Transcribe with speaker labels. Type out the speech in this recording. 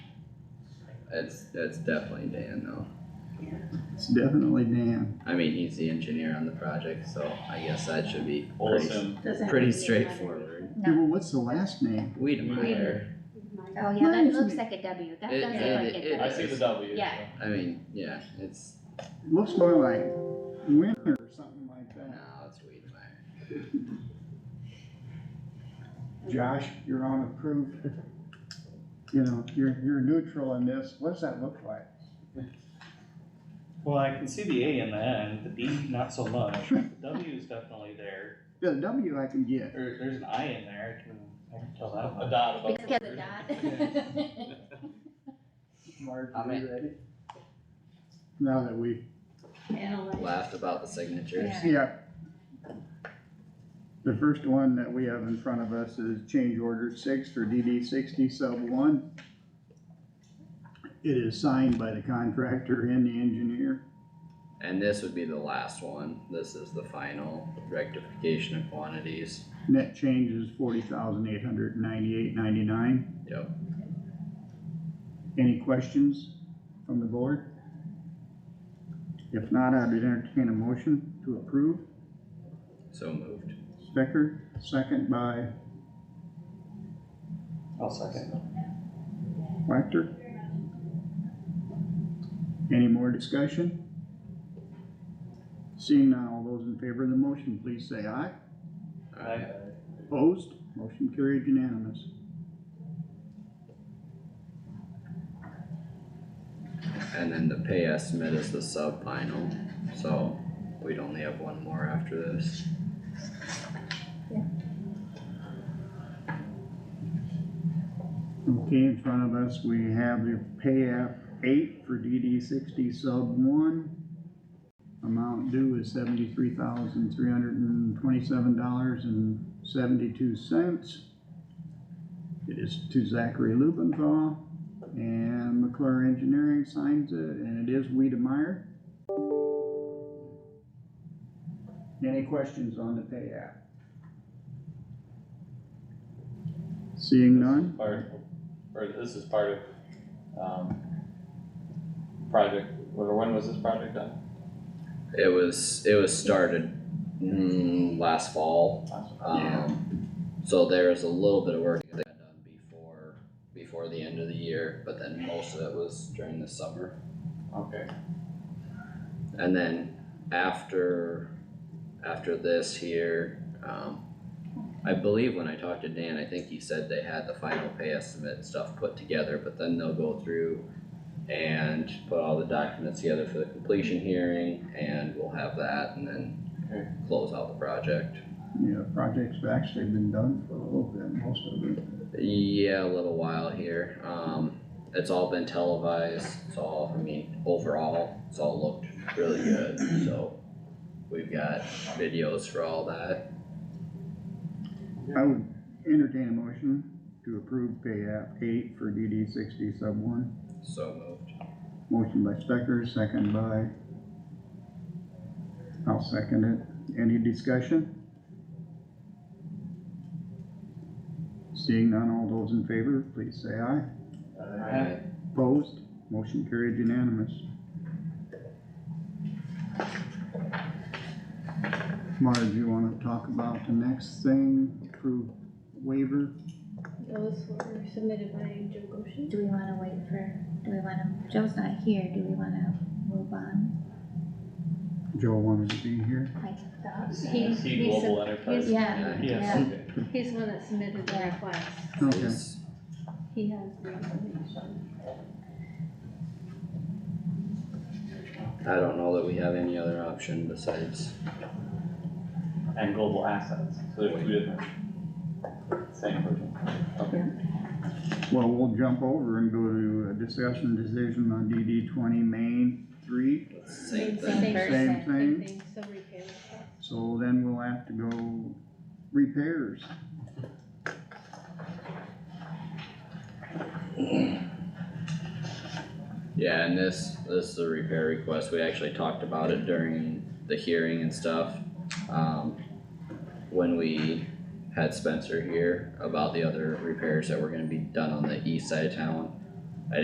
Speaker 1: it's, it's definitely Dan though.
Speaker 2: It's definitely Dan.
Speaker 1: I mean, he's the engineer on the project, so I guess that should be pretty,
Speaker 3: Olson,
Speaker 4: Doesn't
Speaker 1: pretty
Speaker 4: have to be another-
Speaker 1: straightforward.
Speaker 2: Yeah,
Speaker 4: No,
Speaker 2: well, what's the last name?
Speaker 1: Wiedemeyer,
Speaker 4: oh yeah, that
Speaker 2: Nice.
Speaker 4: looks like a W, that
Speaker 1: It-
Speaker 4: does
Speaker 1: it-
Speaker 4: look like a
Speaker 1: it-
Speaker 3: I
Speaker 4: W.
Speaker 3: see the W, so.
Speaker 4: Yeah.
Speaker 1: I mean, yeah, it's,
Speaker 2: It looks more like Winter or something like
Speaker 1: no,
Speaker 2: that.
Speaker 1: it's Wiedemeyer.
Speaker 2: Josh, you're on approved. You know, you're, you're neutral in this. What does that look like?
Speaker 3: Well, I can see the A in that, and the B not so much, the W is definitely there,
Speaker 2: The W I can get.
Speaker 3: there, there's an I in there, I can, I can tell that
Speaker 5: A
Speaker 3: much.
Speaker 5: dot above.
Speaker 4: Because
Speaker 5: the
Speaker 4: of
Speaker 5: word.
Speaker 4: that.
Speaker 2: Mark,
Speaker 1: I'm
Speaker 2: are you
Speaker 1: in.
Speaker 2: ready? Now that we,
Speaker 1: Laughed about the signatures.
Speaker 4: Yeah.
Speaker 2: yeah. The first one that we have in front of us is change order six for DD sixty sub one. It is signed by the contractor and the engineer.
Speaker 1: And this would be the last one, this is the final rectification of quantities,
Speaker 2: Net change is forty thousand eight hundred ninety-eight ninety-nine.
Speaker 1: yep.
Speaker 2: Any questions from the board? If not, I'd entertain a motion to approve.
Speaker 1: So moved.
Speaker 2: Stecker, second by
Speaker 3: I'll second.
Speaker 2: Whacter. Any more discussion? Seeing none, all those in favor of the motion, please say aye.
Speaker 1: Alright,
Speaker 2: Opposed, motion carried unanimous.
Speaker 1: and then the pay estimate is the sub-final, so we'd only have one more after this.
Speaker 2: Okay, in front of us, we have the pay app eight for DD sixty sub one. Amount due is seventy-three thousand, three hundred and twenty-seven dollars and seventy-two cents. It is to Zachary Lubenthal, and McClure Engineering signs it, and it is Weedemeyer. Any questions on the pay app? Seeing none?
Speaker 3: This is Part, or this is part of, um, project, or when was this project done?
Speaker 1: It was, it was started, mm, last fall,
Speaker 3: Last-
Speaker 1: um, so there was a little bit of work that got done before, before the end of the year, but then most of it was during the summer.
Speaker 3: Okay,
Speaker 1: And then after, after this here, um, I believe when I talked to Dan, I think he said they had the final pay estimate and stuff put together, but then they'll go through and put all the documents together for the completion hearing and we'll have that and
Speaker 3: Okay.
Speaker 1: then close out the project.
Speaker 2: Yeah, project's actually been done for a little bit, most of it.
Speaker 1: Yeah, a little while here, um, it's all been televised, it's all, I mean, overall, it's all looked really good, so. We've got videos for all that.
Speaker 2: I would entertain a motion to approve pay app eight for DD sixty sub one.
Speaker 1: So moved.
Speaker 2: Motion by Stecker, second by. I'll second it. Any discussion? Seeing none, all those in favor, please say aye.
Speaker 3: Aye.
Speaker 2: Opposed, motion carried unanimous. Marge, you wanna talk about the next thing, approve waiver?
Speaker 6: Those were submitted by Joe Goshen.
Speaker 4: Do we wanna wait for, do we wanna, Joe's not here, do we wanna move on?
Speaker 2: Joe wanted to be here.
Speaker 4: I thought.
Speaker 6: He-
Speaker 3: C
Speaker 6: he's
Speaker 3: Global
Speaker 6: a-
Speaker 3: Enterprise.
Speaker 4: Yeah,
Speaker 3: Yes,
Speaker 4: yeah.
Speaker 3: okay.
Speaker 6: He's the one that submitted the
Speaker 4: Yeah.
Speaker 6: request.
Speaker 2: Okay,
Speaker 1: Yes.
Speaker 6: He has the information.
Speaker 1: I don't know that we have any other option besides,
Speaker 3: And Global Assets, so there's two different. Same person, okay.
Speaker 2: well, we'll jump over and go to a discussion decision on DD twenty main three.
Speaker 1: same thing.
Speaker 4: Same
Speaker 2: Same
Speaker 4: person.
Speaker 6: Same
Speaker 2: thing,
Speaker 6: thing, so repair request.
Speaker 2: so then we'll have to go repairs.
Speaker 1: Yeah, and this, this is a repair request, we actually talked about it during the hearing and stuff. Um, when we had Spencer here about the other repairs that were gonna be done on the east side of town.